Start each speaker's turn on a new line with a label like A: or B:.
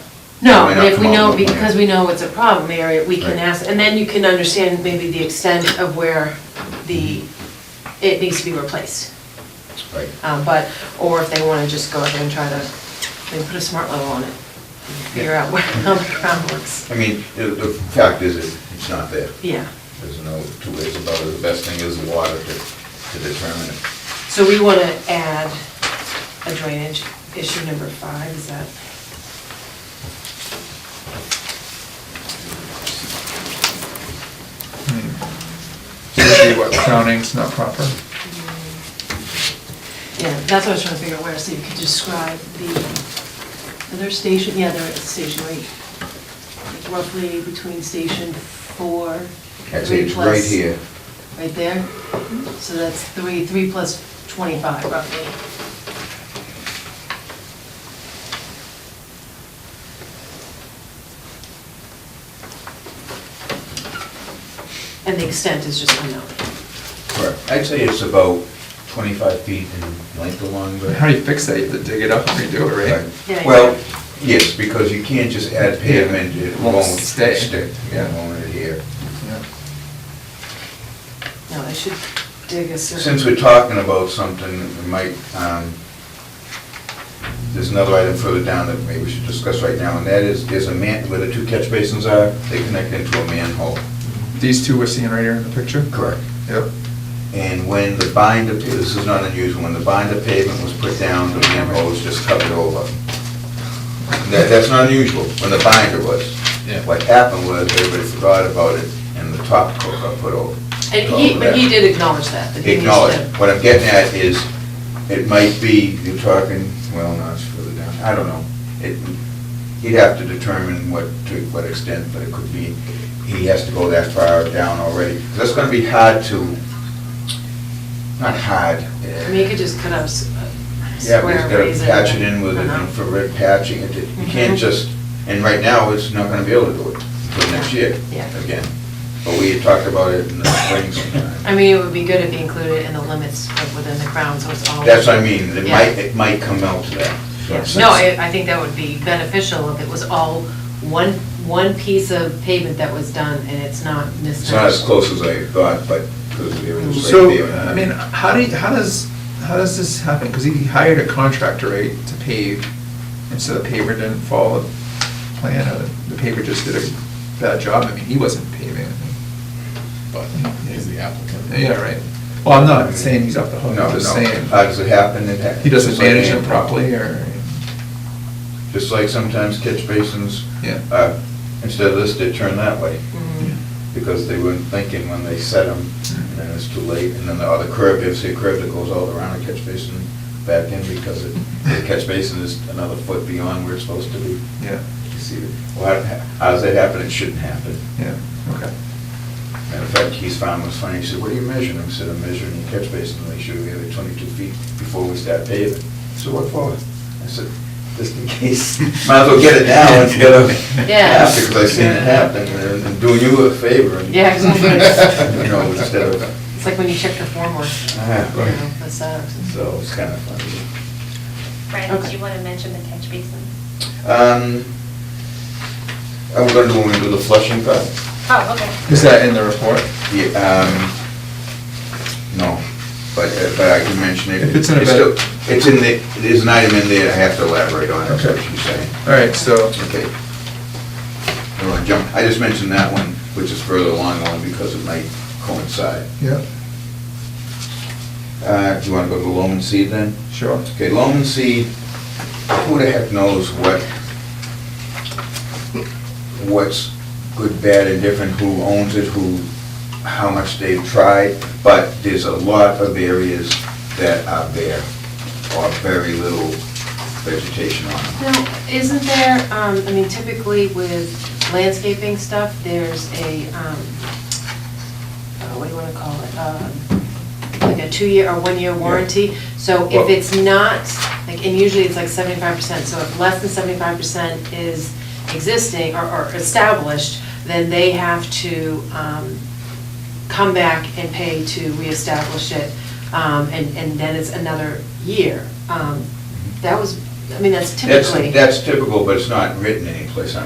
A: No,
B: Why
A: but
B: not
A: if
B: come
A: we
B: out
A: know,
B: with a plan?
A: because we know it's a problem area, we can
B: Right.
A: ask, and then you can understand maybe the extent of where the, it needs to be replaced.
B: Right.
A: Uh, But, or if they want to just go ahead and try to, maybe put a smart level on it, and figure out where, how the ground works.
B: I mean, the, the fact is, it- it's not there.
A: Yeah,
B: There's no two ways about it. The best thing is the water to, to determine it.
A: so we want to add a drainage issue number five, is that?
C: Usually what, crowning's not proper?
A: Yeah, that's what I was trying to figure out where, so you could describe the, other station, yeah, they're at station eight, like roughly between station four,
B: I'd say
A: three
B: it's right
A: plus.
B: here.
A: Right there? So that's three, three plus twenty-five roughly. And the extent is just unknown.
B: Correct. I'd say it's about 25 feet in length along the...
C: How do you fix that? You have to dig it up and redo it, right?
A: Yeah,
B: Right. Well, yes, because you can't just add pavement, it
C: Won't
B: won't
C: stay.
B: stick.
C: Yeah.
B: It won't adhere.
C: Yeah.
A: No, I should dig a certain.
B: Since we're talking about something, we might, um, there's another item further down that maybe we should discuss right now, and that is, there's a man, where the two catch basins are, they connect into a manhole.
C: These two we're seeing right here in the picture?
B: Correct.
C: Yep.
B: And when the binder, this is not unusual, when the binder pavement was put down, the manhole was just covered over. That, that's not unusual, when the binder was.
C: Yeah.
B: What happened was, everybody forgot about it, and the top coat got put over.
A: And he, but he did acknowledge that, that he needs to.
B: Acknowledge, what I'm getting at is, it might be, you're talking, well, no, it's further down, I don't know. It, he'd have to determine what, to what extent, but it could be, he has to go that far down already. That's gonna be hard to, not hard. eh,
A: I mean, you could just cut up s- a
B: Yeah, but
A: square
B: he's
A: raise
B: gotta
A: it.
B: patch it in with an
A: Uh-huh.
B: infrared patching, It- you can't
A: Mhm.
B: just, and right now, it's not gonna be able to do it until next year,
A: Yeah.
B: again. But we had talked about it in the spring sometime.
A: I mean, it would be good if you included in the limits of within the crown, so it's all.
B: That's what I mean, it
A: Yeah.
B: might, it might come out to that.
A: Yeah. No, I, I think that would be beneficial if it was all one, one piece of pavement that was done and it's not
B: It's not as
A: mismatched.
B: close as I thought, but, because it was
C: So,
B: right there.
C: I mean, how do, you- how does, how does this happen? Because he hired a contractor, right, to pave, and so the paver didn't follow the plan, or the paver just did a bad job. I mean, he wasn't paving. I think.
D: but he's the applicant.
C: Yeah, right. Well, I'm not saying he's off the hook, I'm just saying,
B: How Uh, does it happen? It hap-
C: he doesn't
B: just like
C: manage it
B: anything.
C: properly, or,
B: Just like sometimes catch basins,
C: yeah.
B: uh, instead of this, they turn that way,
A: Mhm.
B: because they weren't thinking when they set them, and then it's too late, and then the other curb, you see a curb that goes all around the catch basin back in, because it- the catch basin is another foot beyond where it's supposed to be.
C: Yeah,
B: You see, well, how- how does that happen? It shouldn't happen.
C: yeah, okay.
B: Matter of fact, Keith's farm was funny, he said, what are you measuring? I said, I'm measuring your catch basin, to make sure we have it twenty-two feet before we start paving. So what for? I said, just in case, might as well get it now instead of
A: Yeah.
B: after, because I seen it happen, and I'm doing you a favor. and-
A: Yeah, exactly.
B: You know, instead of,
A: It's like when you check the formwork.
B: Ah, right.
A: you know, that's that.
B: so it's kind of funny.
E: Brian,
A: Okay.
E: did you want to mention the catch basin?
B: Um, I'm gonna do, when we do the flushing part.
E: Oh, okay.
C: Is that in the report?
B: Yeah, um, no, but, uh, but I can mention it.
C: If it's in a
B: still-
C: better-
B: It's in the, there's an item in there, I have to elaborate on, that's what she's saying.
C: All right, so,
B: Okay. I don't wanna jump, I just mentioned that one, which is further along one because it might coincide.
C: yeah,
B: Uh, do you wanna go to loam and seed then?
C: sure.
B: Okay, loam and seed, who the heck knows what, what's good, bad, and different, who owns it, who, how much they've tried, but there's a lot of areas that are bare, or very little vegetation on them.
A: Now, isn't there, um, I mean typically with landscaping stuff, there's a, um, uh, what do you want to call it? Um, Like a two-year or one-year warranty. So if
B: Well-
A: it's not, like, and usually it's like seventy-five percent, so if less than seventy-five percent is existing or- or established, then they have to um, come back and pay to reestablish it, um, and and then it's another year. Um, That was I mean, that's
B: That's,
A: typically.
B: that's typical, but it's not written anyplace